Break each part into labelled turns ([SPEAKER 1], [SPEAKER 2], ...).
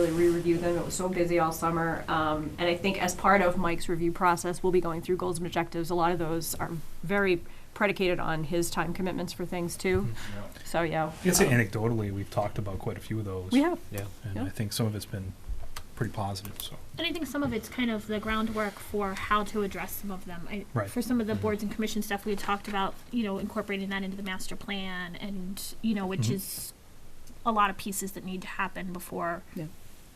[SPEAKER 1] really re-review them. It was so busy all summer. Um, and I think as part of Mike's review process, we'll be going through goals and objectives. A lot of those are very predicated on his time commitments for things too. So, yeah.
[SPEAKER 2] I'd say
[SPEAKER 1] um,
[SPEAKER 2] anecdotally, we've talked about quite a few of those.
[SPEAKER 1] We have.
[SPEAKER 3] Yeah.
[SPEAKER 2] And
[SPEAKER 1] yeah.
[SPEAKER 2] I think some of it's been pretty positive, so.
[SPEAKER 4] And I think some of it's kind of the groundwork for how to address some of them. I,
[SPEAKER 2] Right.
[SPEAKER 4] For some of the boards and commission stuff, we had talked about, you know, incorporating that into the master plan and, you know, which
[SPEAKER 2] Mhm.
[SPEAKER 4] is a lot of pieces that need to happen before
[SPEAKER 1] Yeah.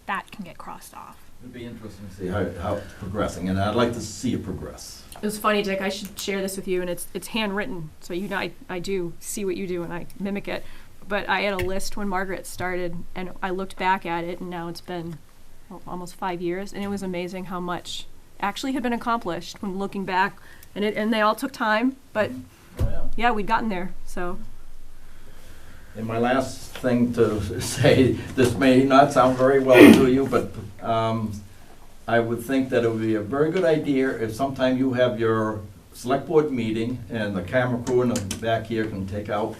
[SPEAKER 4] that can get crossed off.
[SPEAKER 5] It'd be interesting to see how, how it's progressing, and I'd like to see it progress.
[SPEAKER 1] It was funny, Dick. I should share this with you, and it's it's handwritten, so you know I, I do see what you do and I mimic it. But I had a list when Margaret started, and I looked back at it, and now it's been well, almost five years, and it was amazing how much actually had been accomplished when looking back. And it and they all took time, but
[SPEAKER 5] Oh, yeah.
[SPEAKER 1] yeah, we'd gotten there. So
[SPEAKER 5] And my last thing to say, this may not sound very well to you, but um, I would think that it would be a very good idea if sometime you have your select board meeting and the camera crew in the back here can take out,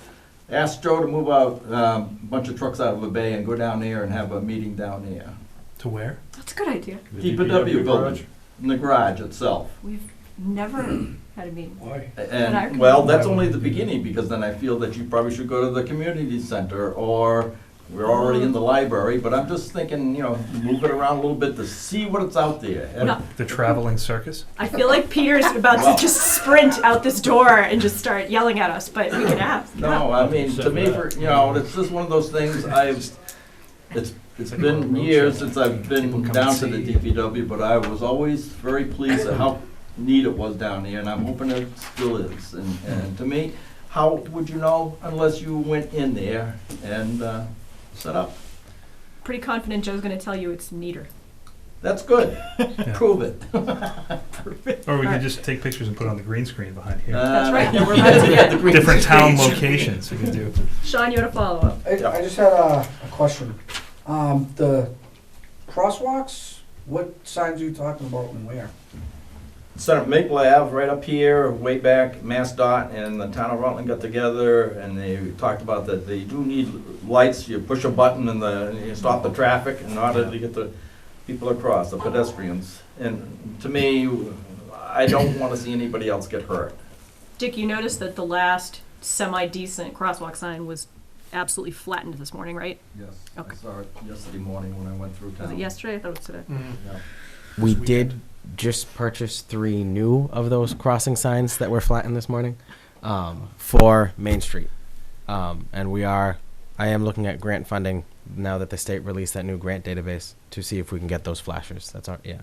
[SPEAKER 5] ask Joe to move out um, a bunch of trucks out of the bay and go down there and have a meeting down there.
[SPEAKER 2] To where?
[SPEAKER 1] that's a good idea.
[SPEAKER 5] DPW building, in the garage itself.
[SPEAKER 1] We've never had a meeting.
[SPEAKER 6] Why?
[SPEAKER 1] And I-
[SPEAKER 5] And, well, that's only the beginning, because then I feel that you probably should go to the community center, or we're already in the library, but I'm just thinking, you know, move it around a little bit to see what it's out there. And
[SPEAKER 1] No.
[SPEAKER 2] The traveling circus?
[SPEAKER 1] I feel like Peter's about
[SPEAKER 5] Wow.
[SPEAKER 1] to just sprint out this door and just start yelling at us, but we can ask.
[SPEAKER 5] No, I mean, to me, for, you know, it's just one of those things, I've, it's, it's been years since I've
[SPEAKER 2] People
[SPEAKER 5] been
[SPEAKER 2] come
[SPEAKER 5] down
[SPEAKER 2] and
[SPEAKER 5] to the
[SPEAKER 2] see.
[SPEAKER 5] DPW, but I was always very pleased at how neat it was down there, and I'm hoping it still is. And, and to me, how would you know unless you went in there and, uh, set up?
[SPEAKER 1] Pretty confident Joe's going to tell you it's neater.
[SPEAKER 5] That's good. Prove it.
[SPEAKER 2] Or we
[SPEAKER 1] Alright.
[SPEAKER 2] could just take pictures and put it on the green screen behind here.
[SPEAKER 5] That's
[SPEAKER 1] right. Yeah, we're about to get-
[SPEAKER 2] Different town locations we could do.
[SPEAKER 1] Sean, you had a follow up.
[SPEAKER 6] I, I just had a, a question. Um, the crosswalks, what signs are you talking about and where?
[SPEAKER 5] Senator Maple Ave, right up here, way back, Mass Dot and the town of Rutland got together and they talked about that they do need lights. You push a button and the, and you stop the traffic in order to get the people across, the pedestrians. And to me, I don't want to see anybody else get hurt.
[SPEAKER 1] Dick, you noticed that the last semi decent crosswalk sign was absolutely flattened this morning, right?
[SPEAKER 5] Yes,
[SPEAKER 1] I Okay.
[SPEAKER 5] saw it yesterday morning when I went through
[SPEAKER 1] Was it yesterday? I thought it was today.
[SPEAKER 2] Mm.
[SPEAKER 7] We did just purchase three new of those crossing signs that were flattened this morning um, for Main Street. Um, and we are, I am looking at grant funding now that the state released that new grant database to see if we can get those flashers. That's our, yeah.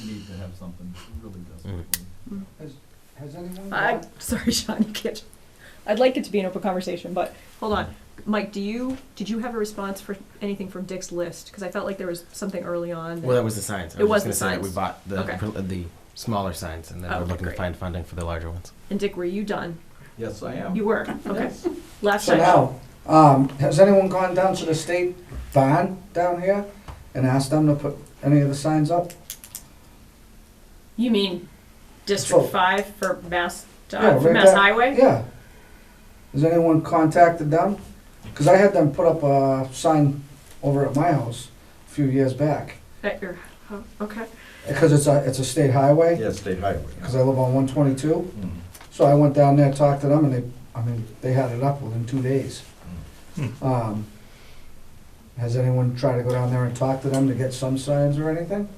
[SPEAKER 5] We need to have something really
[SPEAKER 7] desperately.
[SPEAKER 6] Has anyone?
[SPEAKER 1] I'm sorry, Sean, you can't. I'd like it to be an open conversation, but hold on. Mike, do you did you have a response for anything from Dick's list? Because I felt like there was something early on.
[SPEAKER 7] Well, that was the signs.
[SPEAKER 1] It was
[SPEAKER 7] just
[SPEAKER 1] the
[SPEAKER 7] gonna say that
[SPEAKER 1] signs.
[SPEAKER 7] We bought the,
[SPEAKER 1] Okay.
[SPEAKER 7] pr- the smaller signs and then
[SPEAKER 1] Oh,
[SPEAKER 7] we're
[SPEAKER 1] okay,
[SPEAKER 7] looking to
[SPEAKER 1] great.
[SPEAKER 7] find funding for the larger ones.
[SPEAKER 1] and Dick, were you done?
[SPEAKER 5] Yes, I am.
[SPEAKER 1] You were. Okay. Last
[SPEAKER 6] So
[SPEAKER 1] time.
[SPEAKER 6] now, um, has anyone gone down to the state van down here and asked them to put any of the signs up?
[SPEAKER 1] You mean District
[SPEAKER 6] So-
[SPEAKER 1] Five for Mass
[SPEAKER 6] Yeah,
[SPEAKER 1] uh, for
[SPEAKER 6] right
[SPEAKER 1] Mass
[SPEAKER 6] there.
[SPEAKER 1] Highway?
[SPEAKER 6] Yeah. Has anyone contacted them? Cause I had them put up a sign over at my house a few years back,
[SPEAKER 1] At your, oh, okay.
[SPEAKER 6] because it's a, it's a state highway,
[SPEAKER 5] Yes, state highway.
[SPEAKER 6] cause I live on one twenty-two.
[SPEAKER 5] Mm.
[SPEAKER 6] So I went down there, talked to them, and they, I mean, they had it up within two days. Um, Has anyone tried to go down there and talk to them to get some signs or anything?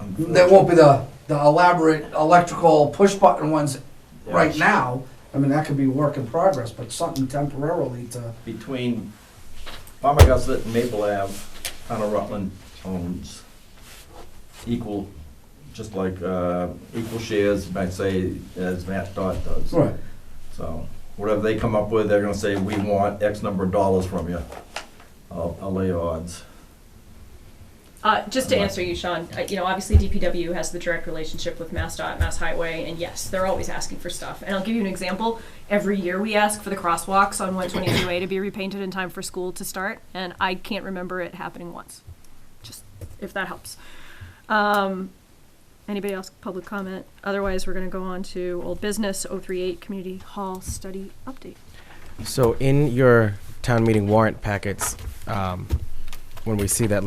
[SPEAKER 6] There won't be the, the elaborate electrical push button ones right
[SPEAKER 5] Yes.
[SPEAKER 6] now. I mean, that could be work in progress, but something temporarily to,
[SPEAKER 5] between Palmagussit and Maple Ave, town of Rutland owns equal, just like, uh, equal shares, you might say, as Matt Dodd does.
[SPEAKER 6] right,
[SPEAKER 5] So, whatever they come up with, they're gonna say, we want X number of dollars from you. I'll, I'll lay odds.
[SPEAKER 1] Uh, just to answer you, Sean, uh, you know, obviously DPW has the direct relationship with MassDOT, Mass Highway, and yes, they're always asking for stuff. And I'll give you an example. Every year we ask for the crosswalks on 122A to be repainted in time for school to start, and I can't remember it happening once. Just if that helps. Um, anybody else, public comment? Otherwise, we're going to go on to old business 038 Community Hall Study Update.
[SPEAKER 7] So in your town meeting warrant packets, um, when we see that